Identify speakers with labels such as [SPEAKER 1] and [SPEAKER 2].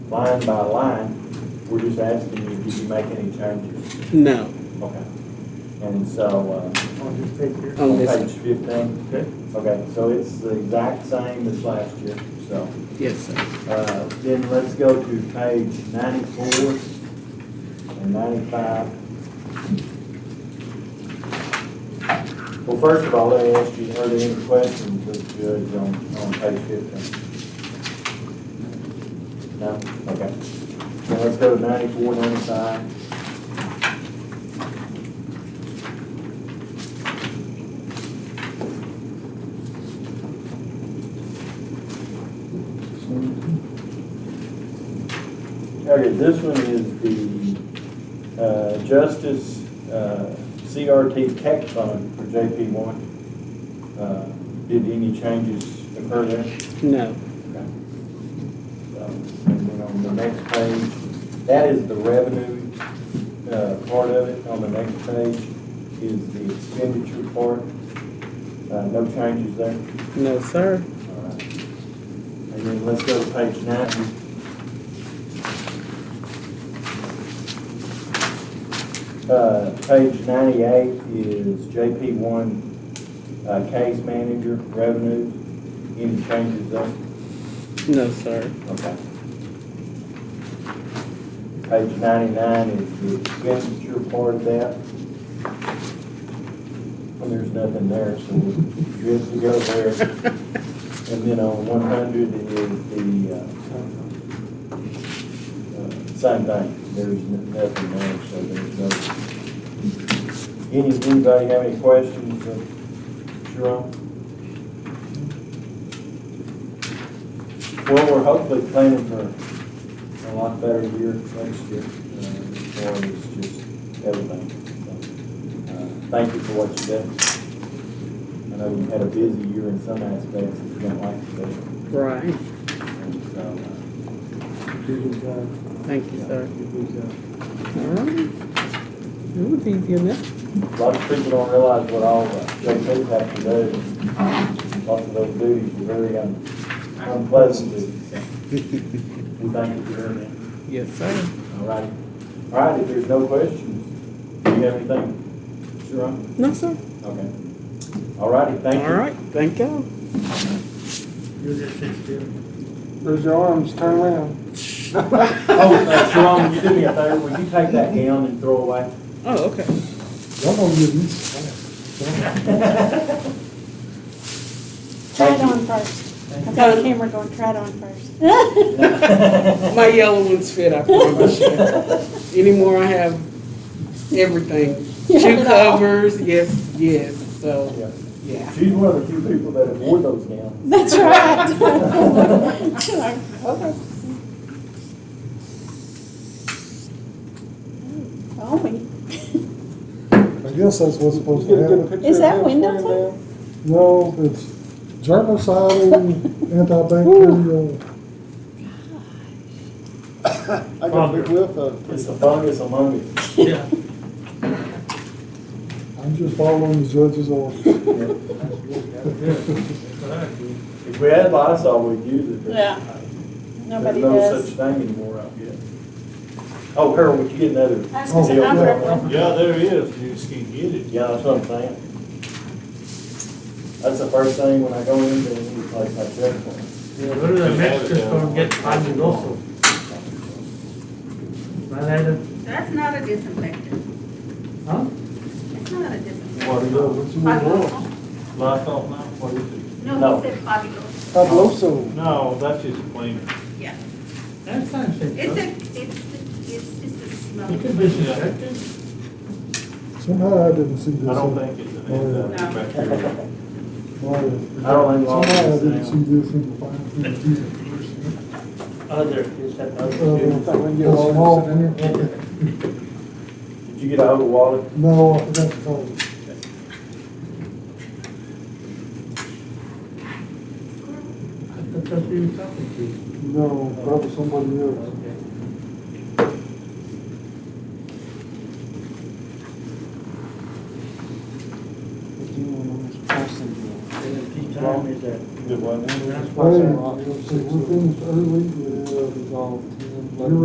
[SPEAKER 1] line by line, we're just asking you if you make any changes.
[SPEAKER 2] No,
[SPEAKER 1] Okay. And so, uh,
[SPEAKER 3] on this picture.
[SPEAKER 2] on
[SPEAKER 1] on
[SPEAKER 2] this,
[SPEAKER 1] page fifteen,
[SPEAKER 3] Okay.
[SPEAKER 1] okay, so it's the exact same as last year, so.
[SPEAKER 2] yes, sir.
[SPEAKER 1] Uh, Then let's go to page ninety-four and ninety-five. Well, first of all, let me ask you, are there any questions of the judge on, on page fifteen? No? Okay. Then let's go to ninety-four, ninety-five. Okay, this one is the uh, Justice uh, CRT Tech Fund for JP one. Uh, Did any changes occur there?
[SPEAKER 2] No,
[SPEAKER 1] Okay. So, And then on the next page, that is the revenue uh, part of it. On the next page is the expenditure part. Uh, No changes there.
[SPEAKER 2] no, sir.
[SPEAKER 1] All right. And then let's go to page nine. Uh, Page ninety-eight is JP one, uh, case manager revenue. Any changes there?
[SPEAKER 2] No, sir.
[SPEAKER 1] Okay. Page ninety-nine is the expenditure part of that. And there's nothing there, so we're good to go there. And then on one hundred is the, uh, uh, same thing, there's n- nothing there, so there's no. Any, anybody have any questions, uh, Sharon? Well, we're hopefully planning for a lot better year next year, uh, as far as just everything. So, uh, Thank you for what you did. I know we had a busy year in some aspects, if you don't like today.
[SPEAKER 2] Right,
[SPEAKER 1] And so, uh,
[SPEAKER 3] Did his, uh,
[SPEAKER 2] thank you, sir.
[SPEAKER 3] did his, uh,
[SPEAKER 2] All right. It was easy enough.
[SPEAKER 1] A lot of people don't realize what all uh, JPs have to do. Lots of those duties are very un- unpleasant. duties, so. We thank you for doing that.
[SPEAKER 2] Yes, sir.
[SPEAKER 1] All right, all right, if there's no questions, do you have anything? Sure.
[SPEAKER 2] No, sir.
[SPEAKER 1] Okay. All righty, thank you.
[SPEAKER 2] All right, thank y'all.
[SPEAKER 3] you're just sixteen.
[SPEAKER 4] Raise your arms, turn around.
[SPEAKER 1] Oh, uh, Sharon, you do me a favor, will you take that gown and throw away?
[SPEAKER 2] Oh, okay.
[SPEAKER 4] Y'all gonna give me
[SPEAKER 5] Try it on first. I've got a camera going, try it on first.
[SPEAKER 2] My yellow ones fit, I promise you. Anymore, I have everything.
[SPEAKER 5] You have
[SPEAKER 2] Shoe
[SPEAKER 5] it all.
[SPEAKER 2] covers, yes, yes, so,
[SPEAKER 1] Yeah.
[SPEAKER 2] yeah.
[SPEAKER 1] She's one of the few people that have worn those gowns.
[SPEAKER 5] That's right. Like, okay. Call me.
[SPEAKER 4] I guess that's what's supposed
[SPEAKER 3] Get
[SPEAKER 4] to
[SPEAKER 3] a good
[SPEAKER 4] happen.
[SPEAKER 3] picture
[SPEAKER 5] Is
[SPEAKER 3] of
[SPEAKER 5] that
[SPEAKER 3] him
[SPEAKER 5] window
[SPEAKER 3] laying
[SPEAKER 4] No, it's germicidal, antibacterial.
[SPEAKER 3] down? I got a big whiff of.
[SPEAKER 1] It's the fungus among us.
[SPEAKER 3] Yeah.
[SPEAKER 4] I'm just following the judge's orders.
[SPEAKER 1] If we had Lysol, we'd use it. but
[SPEAKER 5] Yeah.
[SPEAKER 1] There's
[SPEAKER 5] Nobody
[SPEAKER 1] no such
[SPEAKER 5] does.
[SPEAKER 1] thing anymore out here. Oh, Harold, would you get another?
[SPEAKER 5] I was gonna say,
[SPEAKER 1] deal?
[SPEAKER 5] I'm real-
[SPEAKER 6] Yeah, there is, you just can't get it.
[SPEAKER 1] Yeah, that's what I'm saying. That's the first thing when I go into any place like that.
[SPEAKER 3] Yeah, what are the Mexicans gonna get funded also? Well, I don't,
[SPEAKER 7] That's not a disinfectant.
[SPEAKER 3] huh?
[SPEAKER 7] It's not a disinfectant.
[SPEAKER 6] What is it?
[SPEAKER 7] Fabuloso.
[SPEAKER 6] Lysol now, what is it?
[SPEAKER 7] No,
[SPEAKER 1] No.
[SPEAKER 7] he said fabuloso.
[SPEAKER 4] Fabuloso.
[SPEAKER 6] No, that's just cleaner.
[SPEAKER 7] Yeah.
[SPEAKER 3] That's not
[SPEAKER 7] It's
[SPEAKER 3] safe.
[SPEAKER 7] a, it's, it's just a
[SPEAKER 3] You
[SPEAKER 7] smell.
[SPEAKER 3] can be suspected.
[SPEAKER 4] Somehow I didn't
[SPEAKER 6] I
[SPEAKER 4] see this.
[SPEAKER 6] don't
[SPEAKER 4] in-
[SPEAKER 6] think it's an antibacterial.
[SPEAKER 4] Oh, yeah.
[SPEAKER 1] I don't think
[SPEAKER 4] Somehow
[SPEAKER 1] law
[SPEAKER 4] I didn't
[SPEAKER 1] is
[SPEAKER 4] see
[SPEAKER 1] down.
[SPEAKER 4] this in the fine.
[SPEAKER 3] Other, is that
[SPEAKER 4] print. Uh,
[SPEAKER 3] other?
[SPEAKER 4] a small print.
[SPEAKER 1] Did you get a hold of Wally?
[SPEAKER 4] No, I forgot to call it.
[SPEAKER 3] That's what you were talking
[SPEAKER 4] No, probably somebody
[SPEAKER 3] to.
[SPEAKER 4] else.
[SPEAKER 3] Okay. And if he told me that.
[SPEAKER 1] Good one.
[SPEAKER 3] That's
[SPEAKER 4] Well,
[SPEAKER 3] why
[SPEAKER 4] we're finished early, uh, You're